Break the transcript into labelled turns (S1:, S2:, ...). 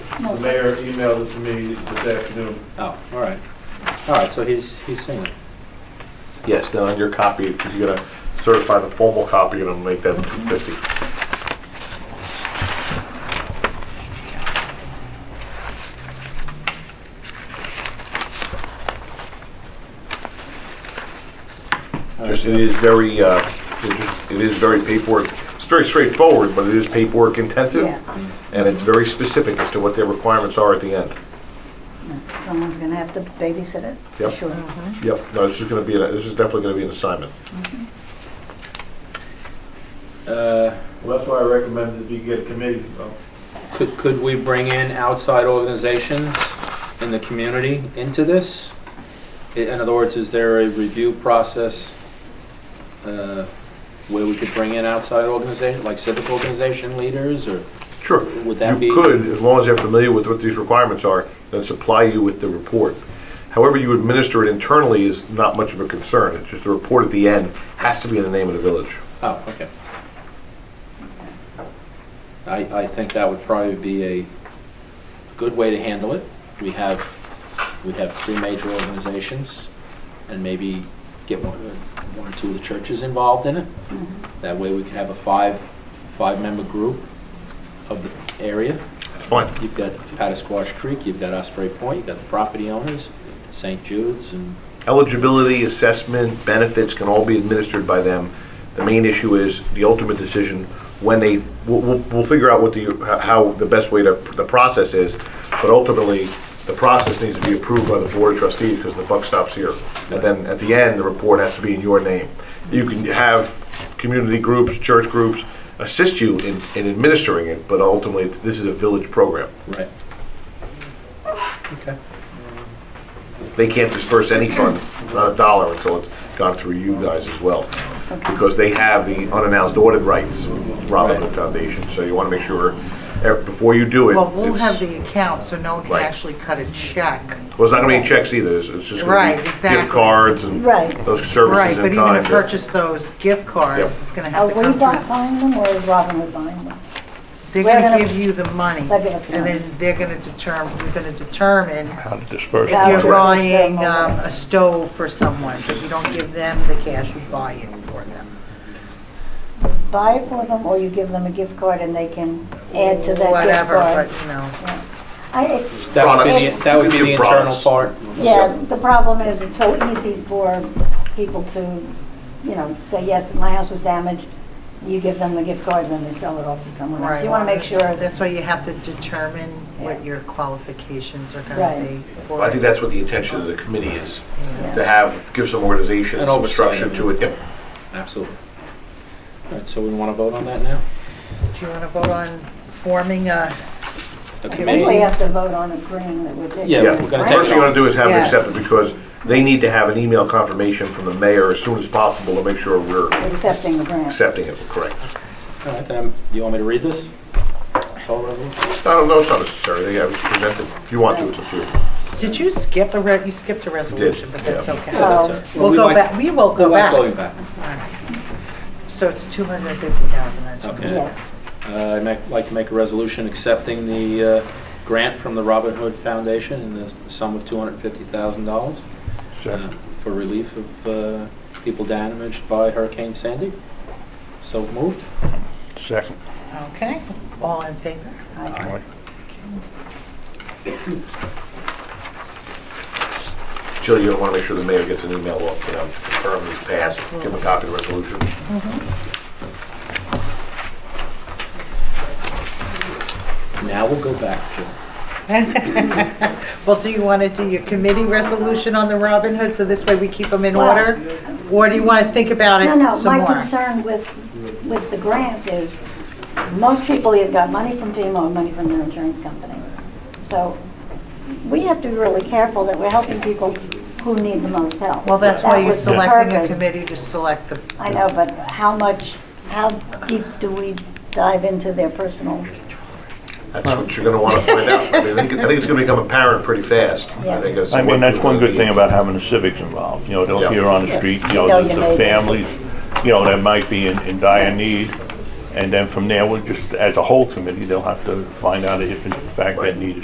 S1: The mayor emailed it to me this afternoon.
S2: Oh, all right. All right, so he's, he's seen it.
S3: Yes, then on your copy, you're gonna certify the formal copy and I'll make that two fifty.
S2: All right,
S3: Just, it is very, uh, it just- it is very paperwork, it's very straightforward, but it is paperwork intensive.
S4: Yeah,
S3: And it's very specific as to what their requirements are at the end.
S4: someone's gonna have to babysit it.
S3: Yep.
S4: Sure.
S3: Yep, no, this is gonna be, a- this is definitely gonna be an assignment.
S2: Uh,
S1: Well, that's why I recommend that you get a committee. well,
S2: Could, could we bring in outside organizations in the community into this? I- In other words, is there a review process uh, where we could bring in outside organization, like civic organization leaders, or
S3: Sure.
S2: Would that be-
S3: You could, as long as they're familiar with what these requirements are, then supply you with the report. However you administer it internally is not much of a concern. It's just the report at the end has to be in the name of the village.
S2: Oh, okay. I, I think that would probably be a good way to handle it. We have, we have three major organizations, and maybe get one, one or two of the churches involved in it. That way we could have a five, five-member group of the area.
S3: That's fine.
S2: You've got Patasquash Creek, you've got Osprey Point, you've got the property owners, St. Jude's, and
S3: Eligibility, assessment, benefits can all be administered by them. The main issue is the ultimate decision when they, we'll, we'll, we'll figure out what the, how- how the best way to, the process is. But ultimately, the process needs to be approved by the board of trustees because the buck stops here. And then at the end, the report has to be in your name. You can have community groups, church groups assist you in, in administering it, but ultimately, this is a village program.
S2: Right. Okay.
S3: They can't disperse any funds, not a dollar, until it's gone through you guys as well. Because they have the unannounced audit rights, Robin Hood
S2: Right.
S3: Foundation, so you want to make sure, eh, before you do it.
S5: Well, we'll
S3: it's-
S5: have the account, so no one can
S3: Right.
S5: actually cut a check.
S3: Well, it's not going to be any checks either, it's it's just
S5: Right,
S3: going to be gift
S5: exactly.
S3: cards and
S4: Right.
S3: those
S5: Right,
S3: services
S5: but
S3: in
S5: even
S3: kind.
S5: to
S3: that-
S5: purchase those gift cards, it's gonna
S4: Are
S5: have to
S4: Oh, we
S5: come
S4: bu-
S5: through.
S4: buying them or is Robin Hood buying them?
S5: They're
S4: we're
S5: gonna
S4: gonna-
S5: give you the money,
S4: They'll give us the
S5: and
S4: money.
S5: then they're gonna determine, we're gonna determine
S6: how to disperse.
S4: Yeah.
S5: if
S4: Hours
S5: you're
S4: of
S5: buying
S4: ceremony.
S5: um, a stove for someone. If you don't give them the cash, you buy it for them.
S4: Buy it for them or you give them a gift card and they can add to that gift card?
S5: Whatever, but, you know,
S4: I, it's,
S2: That would be
S4: Products.
S2: the, that would be the
S3: Your
S2: internal
S3: products.
S2: part.
S4: yeah, the problem is it's so easy for people to, you know, say, yes, my house was damaged. You give them the gift card and then they sell it off to someone else.
S5: right.
S4: You want to make sure that,
S5: That's why you have to determine what
S4: Yeah.
S5: your qualifications are
S4: Right.
S5: gonna be for
S3: I think
S5: it.
S3: that's what the intention of the committee is,
S4: Yeah.
S3: to have, give some organization,
S2: And
S3: some
S2: oversight,
S3: structure
S2: I
S3: to
S2: mean.
S3: it. Yep.
S2: Absolutely. All right, so we want to vote on that now?
S5: Do you wanna vote on forming a,
S2: The
S4: I think we
S2: committee?
S4: have to vote on agreeing that we're taking
S2: Yeah,
S3: Yeah,
S2: we're
S4: this,
S2: gonna
S4: right?
S2: take
S3: first thing you want to do is have it
S5: Yes.
S3: accepted, because they need to have an email confirmation from the mayor as soon as possible to make sure we're
S4: Accepting the grant.
S3: accepting it, correct?
S2: All right, then, you want me to read this? This whole resolution?
S3: I don't know, it's not necessary, they have it presented, if you want to, it's up to you.
S5: did you skip a, re- you skipped a resolution, but that's
S3: yeah.
S5: okay.
S2: Yeah, that's all right.
S5: We'll
S2: We
S5: go
S2: like-
S5: back, we will
S2: we
S5: go
S2: like
S5: back.
S2: going back.
S5: So it's 250,000, I just.
S2: Okay.
S4: Yes.
S2: Uh, I'd make- like to make a resolution accepting the uh, grant from the Robin Hood Foundation in the sum of $250,000 uh, for relief of uh, people damaged by Hurricane Sandy. So moved.
S6: Second.
S5: Okay, all in favor?
S3: Jill, you want to make sure the mayor gets an email off, you know, confirm it's passed, give him a copy of the resolution.
S2: Now we'll go back to,
S5: Well, do you want to do your committee resolution on the Robin Hood, so this way we keep them in
S4: Well-
S5: order? Or do you want to think about
S4: No,
S5: it
S4: no,
S5: some
S4: my
S5: more?
S4: concern with, with the grant is, most people either got money from FEMA or money from their insurance company. So we have to be really careful that we're helping people who need the most help.
S5: Well, that's why
S4: That
S5: you're
S4: was the
S5: selecting a
S4: purpose.
S5: committee to select the,
S4: I know, but how much, how deep do we dive into their personal?
S3: That's what you're going to want to find out. I mean, I think I think it's going to become apparent pretty fast. I think that's.
S6: I mean,
S3: what
S6: that's
S3: we're
S6: one
S3: gonna
S6: good
S3: be-
S6: thing about having the civics involved, you know,
S3: Yeah.
S6: don't hear on the street, you
S4: You know
S6: know, the
S4: your
S6: the
S4: neighbors.
S6: families, you know, that might be in, in dire need. And then from there, we'll just, as a whole committee, they'll have to find out if in fact that need is